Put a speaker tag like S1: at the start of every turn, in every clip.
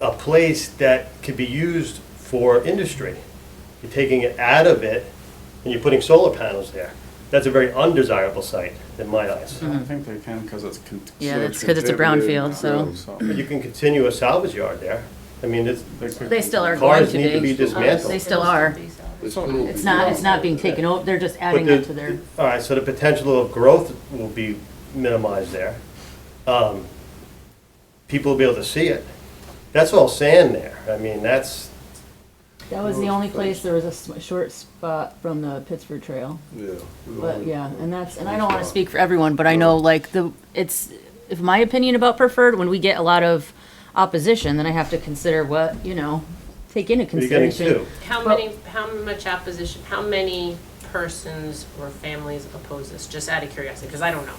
S1: a place that could be used for industry. You're taking it out of it and you're putting solar panels there. That's a very undesirable site in my eyes.
S2: Mm-hmm.
S3: I think they can because it's. con-
S2: Yeah,
S3: so
S2: that's 'cause it's a
S3: contributed
S2: brownfield, so-
S1: But you can continue a salvage yard there. I mean, it's,
S3: could-
S2: They still are going
S1: Cars
S2: to
S1: need to be
S2: be.
S1: dismantled.
S2: They still are.
S4: It's not moving.
S2: It's not, it's not being taken over, they're just
S1: but
S2: adding
S1: the,
S2: it to their,
S1: all right, so the potential of growth will be minimized there. Um, People will be able to see it. That's all sand there. I mean, that's,
S5: That was the only place there was a sm- short spot from the Pittsburgh Trail,
S4: Yeah.
S5: but yeah, and that's, and I don't wanna speak for everyone, but I know like the, it's, if my opinion about preferred, when we get a lot of opposition, then I have to consider what, you know, take into
S1: you're getting
S5: consideration.
S1: two.
S6: How many, how much opposition, how many persons or families oppose this? Just out of curiosity, because I don't know.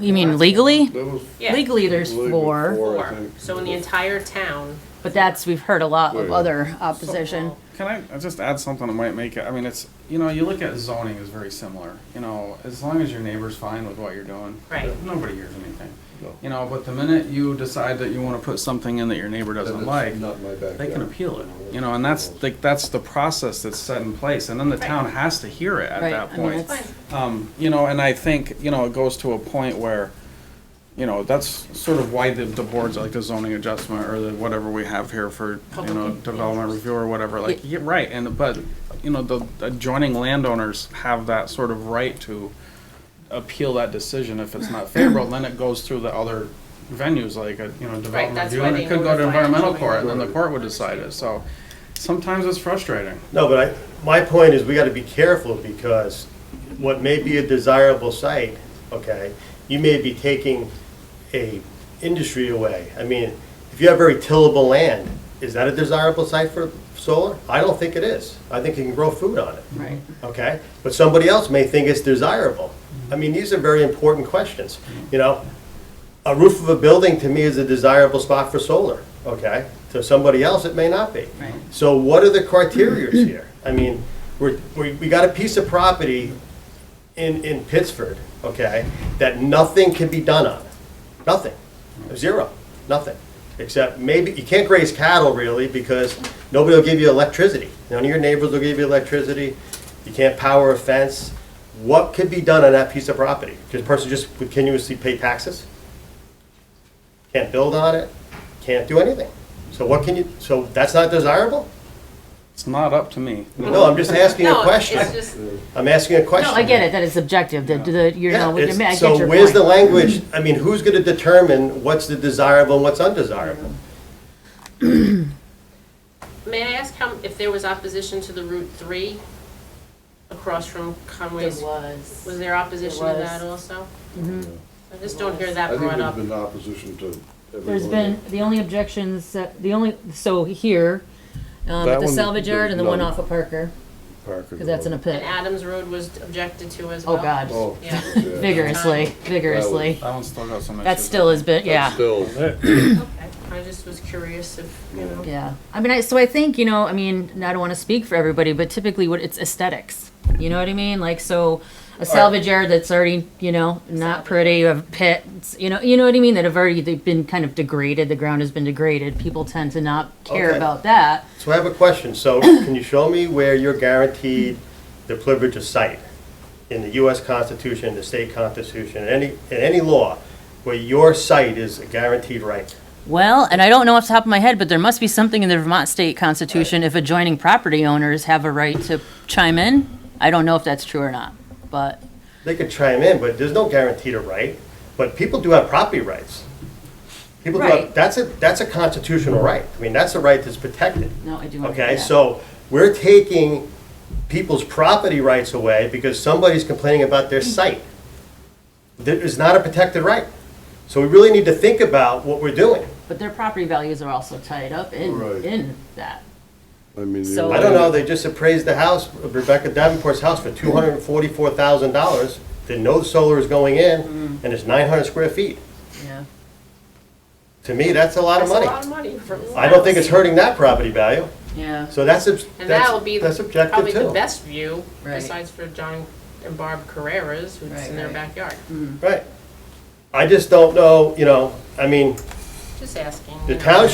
S5: You mean legally?
S4: That was
S6: Yeah.
S5: Legally, there's
S4: Legally
S5: four,
S4: four, I
S6: Four.
S4: think.
S6: So in the entire town.
S5: but that's, we've heard a lot of
S4: Yeah.
S5: other opposition.
S3: Can I I just add something that might make it, I mean, it's, you know, you look at zoning is very similar, you know, as long as your neighbor's fine with what you're doing.
S6: Right.
S3: Nobody hears anything.
S4: No.
S3: You know, but the minute you decide that you wanna put something in that your neighbor
S4: And
S3: doesn't
S4: it's
S3: like,
S4: Not my backyard.
S3: they can appeal it, you know, and that's, like, that's the process that's set in place, and then the town has to hear it at
S5: Right,
S3: that
S5: I
S3: point.
S5: mean, it's-
S3: Um, you know, and I think, you know, it goes to a point where, you know, that's sort of why the, the boards, like the zoning adjustment or the whatever we have here for, you know, development review or whatever, like, yeah, right, and, but, you know, the adjoining landowners have that sort of right to appeal that decision if it's not favorable, then it goes through the other venues, like, uh, you know, development
S6: that's
S3: review,
S6: why
S3: and
S6: they
S3: it could go to
S6: notify
S3: environmental
S6: the
S3: court, and then the
S4: Right.
S3: court would decide it, so sometimes it's frustrating.
S1: No, but I, my point is, we gotta be careful, because what may be a desirable site, okay, you may be taking a industry away. I mean, if you have very tillable land, is that a desirable site for solar? I don't think it is. I think you can grow food on it.
S5: Right.
S1: Okay, but somebody else may think it's desirable. I mean, these are very important questions, you know? A roof of a building to me is a desirable spot for solar, okay? To somebody else, it may not be.
S5: Right.
S1: So what are the criterias here? I mean, we're, we, we got a piece of property in, in Pittsford, okay, that nothing can be done on. Nothing. Zero. Nothing. Except maybe, you can't graze cattle really because nobody will give you electricity. None of your neighbors will give you electricity. You can't power a fence. What could be done on that piece of property? This person just would continuously pay taxes? Can't build on it? Can't do anything? So what can you, so that's not desirable?
S3: It's not up to me.
S1: No, I'm just asking a
S6: No, it's
S1: question.
S6: just-
S1: I'm asking a question.
S5: No, I get it, that is subjective, the, the, you
S1: Yeah,
S5: know, I
S1: it's-
S5: get your
S1: so where's the
S5: point.
S1: language, I mean, who's gonna determine what's the desirable and what's undesirable?
S6: May I ask how, if there was opposition to the Route Three across from Conway's?
S2: was.
S6: Was there opposition to
S2: There was.
S6: that also? I just don't hear
S4: I
S6: that
S4: think
S6: brought
S4: there's
S6: up.
S4: been opposition to everyone.
S5: There's been, the only objections, that- the only, so here, um, at
S4: That
S5: the
S4: one,
S5: salvage yard and the one
S4: no.
S5: off of Parker, cause that's in a
S6: And
S5: pit.
S6: Adams Road was objected to as well.
S5: Oh, God,
S4: Oh.
S6: Yeah.
S5: vigorously, vigorously.
S3: That one's still got some issues.
S5: That still has been, yeah.
S4: Still,
S6: Okay. I just was curious if, you know.
S5: Yeah, I mean, I, so I think, you know, I mean, I don't wanna speak for everybody, but typically what, it's aesthetics, you know what I mean? Like, so, a salvage yard that's already, you know, not pretty, a pit, it's- you know, you know what I mean? That have already, they've been kind of degraded, the ground has been degraded, people tend to not care
S1: Okay.
S5: about that.
S1: So I have a question, so can you show me where you're guaranteed the privilege of sight? In the US Constitution, the state constitution, any, in any law, where your sight is a guaranteed right?
S5: Well, and I don't know off the top of my head, but there must be something in the Vermont state constitution if adjoining property owners have a right to chime in. I don't know if that's true or not, but
S1: They could chime in, but there's no guarantee to right, but people do have property rights. People do have,
S5: Right.
S1: that's a, that's a constitutional right, I mean, that's a right that's protected.
S5: no, I do.
S1: Okay, so we're taking people's property rights away because somebody's complaining about their site. That is not a protected right. So we really need to think about what we're doing.
S5: But their property values are also tied up in,
S4: Right.
S5: in that.
S4: I mean.
S5: So-
S4: you're-
S1: I don't know, they just appraised the house, Rebecca Davenport's house for two hundred and forty-four thousand dollars. They know solar is going in,
S5: Mm.
S1: and it's nine hundred square feet.
S5: Yeah.
S1: To me, that's a lot of
S6: That's a
S1: money.
S6: lot of money for.
S1: I don't think it's hurting that property value,
S5: Yeah.
S1: so that's, subs-
S6: And that'll be
S1: that's, that's subjective
S6: probably the
S1: too.
S6: best view,
S5: Right.
S6: besides for John and Barb Carreras, who's
S5: Right,
S6: in their
S5: right. Mm.
S6: backyard.
S1: Right. I just don't know, you know, I mean,
S6: Just asking.
S1: the
S6: you know.
S1: town